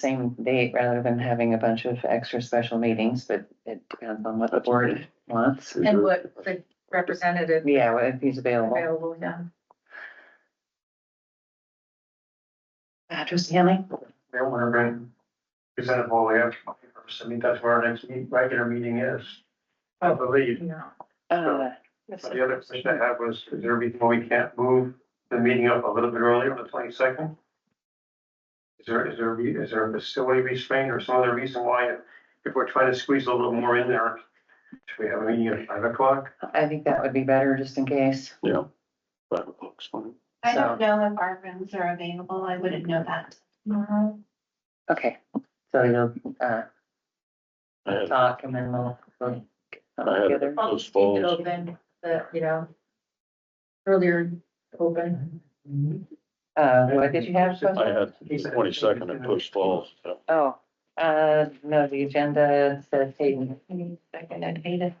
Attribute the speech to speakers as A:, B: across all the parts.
A: same date rather than having a bunch of extra special meetings, but it depends on what the board wants.
B: And what the representative
A: Yeah, well, if he's available.
B: available, yeah.
A: Uh, Trustee Henley?
C: They want to bring, present it all the way up. I mean, that's where our next meet, regular meeting is. I believe,
A: Uh,
C: but the other question I had was, is there a reason why we can't move the meeting up a little bit earlier on the twenty second? Is there, is there, a re- is there a facility restraint or some other reason why, if we're trying to squeeze a little more in there? Should we have a meeting at five o'clock?
A: I think that would be better just in case.
D: Yeah. Five o'clock's fine.
E: I
A: So,
E: don't know if our rooms are available. I wouldn't know that.
B: Mm-hmm.
A: okay, so you'll, uh,
D: I had,
A: talk and then we'll, we'll get
D: I
A: something
D: had-
A: together.
B: I'll
D: Those
B: just keep it
D: falls.
B: open, the, you know, earlier open. Mm-hmm.
A: Uh, what did you have?
D: I
A: Sophie?
D: had twenty second at Post Falls. so
A: Oh, uh, no, the agenda says Hayden.
B: Second at eight.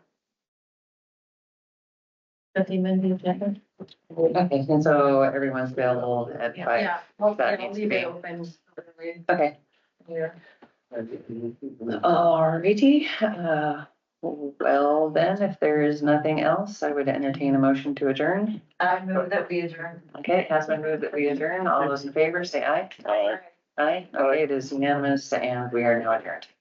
B: Nothing in the agenda?
A: Okay, and so everyone's available at five.
B: Yeah, well,
A: That
B: yeah,
A: needs to
B: leave it
A: be-
B: open.
A: Okay.
B: Yeah.
A: Alrighty, uh, well then, if there is nothing else, I would entertain a motion to adjourn.
B: I move that we adjourn.
A: Okay, it has been moved that we adjourn. All those in favor, say aye.
D: Aye.
A: Aye. Okay, it is unanimous and we are now adjourned.